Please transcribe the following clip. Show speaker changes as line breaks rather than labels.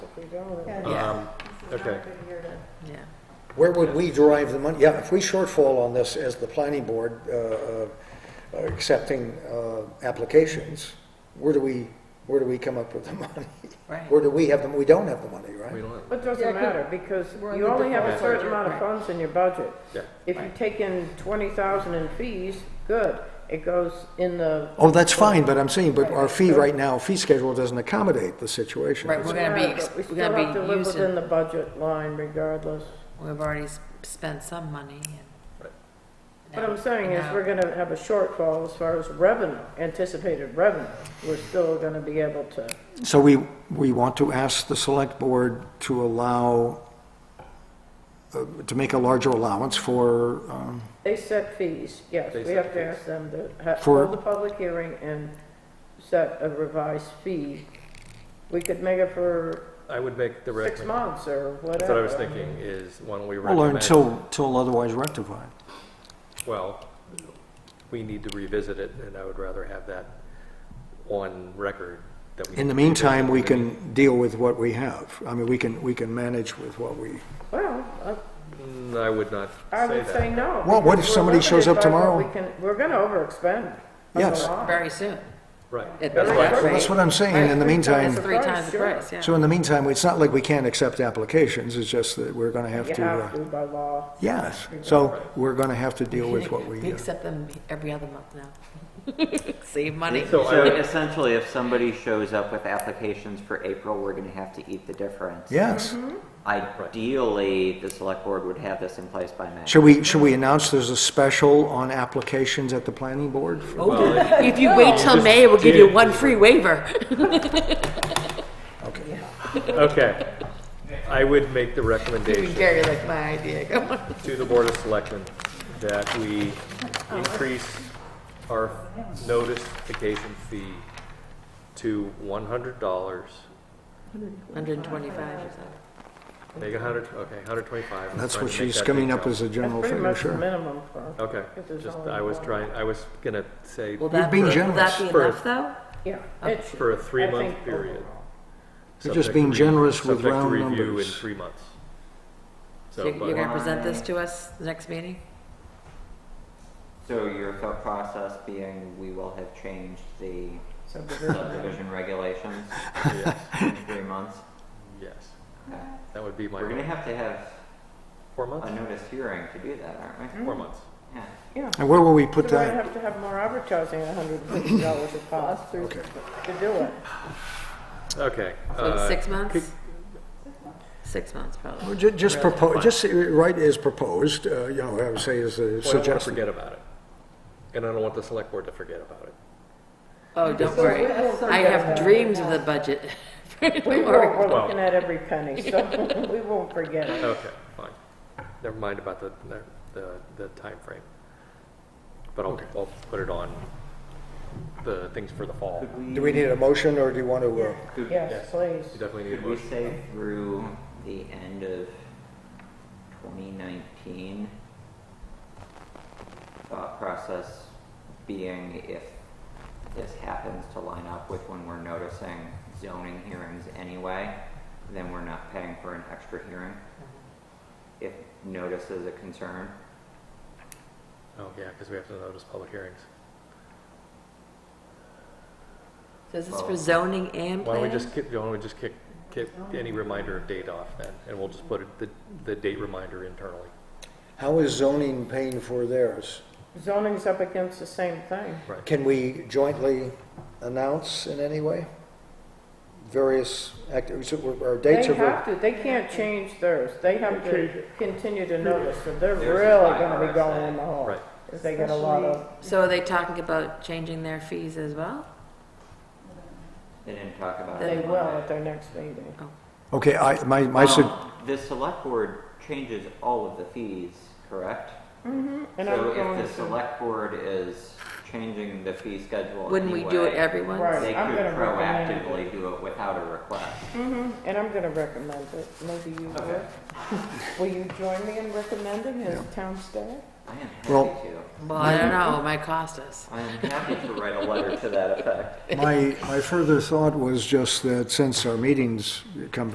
we don't.
Yeah.
Um,
This is not a
okay.
good year to-
Yeah.
Where would we derive the money? Yeah, if we shortfall on this as the planning board, uh, uh, accepting, uh, applications, where do we, where do we come up with the money?
Right.
Where do we have them? We don't have the money,
we
right?
don't have,
It doesn't
Yeah, 'cause
matter, because
we're on
you
the
only have a
default
certain
budget,
amount of
right.
funds in your budget.
yeah.
If you
Right.
take in twenty thousand in fees, good, it goes in the,
Oh, that's fine, but I'm saying, but our fee right now, fee schedule doesn't accommodate the situation.
Right, we're gonna
Yeah,
be,
but we
we're
still have to
gonna be
live within
using,
the budget line regardless.
we've already s- spent some money and.
Right.
What I'm saying is,
now-
we're gonna have a shortfall as far as revenue, anticipated revenue. We're still gonna be able to,
So we, we want to ask the select board to allow, uh, to make a larger allowance for, um,
they set fees, yes,
They
we
set
have to
fees.
ask them to ha-
For-
hold a public hearing and set a revised fee. We could make it for
I would make the
six
recommendation,
months or whatever.
that's what I was thinking, is why don't we
well,
recommend,
until, until otherwise rectified.
well, we need to revisit it, and I would rather have that on record that we.
In the
revisit
meantime, we
it.
can deal with what we have. I mean, we can, we can manage with what we,
Well, I-
Mm, I would not
I
say
would say
that.
no.
Well, what
because
if
we're
somebody shows
limited by
up
what
tomorrow?
we can- We're gonna overexpend. on the
Yes.
line.
Very soon.
Right.
It-
That's why-
Well, that's what I'm saying, in the
It's
meantime,
three times the
Sure.
price, yeah.
so in the meantime, it's not like we can't accept applications, it's just that we're gonna have
You
to,
have
uh,
to by law.
yes, so we're gonna have to deal with what
We
we, uh,
accept them every other month now. Save money.
So
So
I,
essentially, if somebody shows up with applications for April, we're going to have to eat the difference.
yes.
Mm-hmm.
Ideally, the select board would have this in place by May.
Should we, should we announce there's a special on applications at the planning board? for-
well,
If you wait till May, we'll give you one free waiver.
Okay.
okay. I would make the recommendation.
Gary, like my idea, come on.
to the Board of Selectmen that we increase our notification fee to one hundred dollars.
Hundred and twenty-five or something.
Make a hundred, okay, hundred twenty-five.
That's what she's coming up as a general
That's pretty
figure,
much the
sure.
minimum for,
Okay,
If there's
just,
only
I was
one.
trying, I was gonna say,
Will
You're
that,
being
will
generous.
that be
For-
enough, though?
yeah. it should-
for a three-month
I think
period.
overall.
You're
subject
just
to
being
re-
generous with
subject to
round
review in
numbers.
three months. So,
So You're you're
but-
gonna present this to us the next meeting?
So your thought process being, we will have changed the subdivision regulations
yes,
in three months.
yes,
Okay.
that would be my,
We're going to have to have
four
a
months,
notice hearing to do that, aren't we?
four months.
Yeah.
Yeah.
And where will we put
So I
that?
have to have more advertising, hundred and fifty dollars a pop to
Okay.
to do it.
Okay.
So it's
uh,
six months?
could-
Six months, probably.
Well, ju- Just propose, just write as proposed, uh, you know, I would say as a
Well, I don't wanna
suggestion.
forget about it, and I don't want the select board to forget about it.
Oh, don't worry. I have dreams of the budget.
We won't, we're
Well-
looking at every penny, so we won't forget it.
Okay, fine. Never mind about the, the, the timeframe. But I'll, I'll put it on the things for the fall.
Could
Do we need a motion, or do you want to, uh,
Could
Yes, please.
You definitely need a
Could we
motion.
say through the end of 2019? Thought process being if this happens to line up with when we're noticing zoning hearings anyway, then we're not paying for an extra hearing.
Mm-hmm.
If notice is a concern,
Oh, yeah, because we have to notice public hearings.
So is this for zoning and planning?
Why don't we just kick, why don't we just kick, kick any reminder of date off then? And we'll just put it- the, the date reminder internally.
how is zoning paying for theirs?
Zoning's up against the same thing.
Can we jointly announce in any way? Various activities, our
They
dates are...
have to, they can't change theirs. They have to continue to notice, so they're
There's a
really gonna be
IRS
going
thing.
in the hole.
Right.
If they get a lot of,
So are they talking about changing their fees as well?
they didn't talk about
they
it.
will at their next meeting.
Okay, I, my, my, sug-
Um, The select board changes all of the fees, correct?
And I'm
So if
going
the
to-
select board is changing the fee schedule
Wouldn't we do it
anyway,
every once?
Right.
They
I'm
could
gonna recommend
proactively do it without a request.
And I'm gonna recommend it, maybe you
Okay.
will. Will you join me in recommending as town staff?
I am
Well-
happy to.
Well, I don't know, it might cost us.
I am happy to write a letter to that effect.
my, my further thought was just that since our meetings come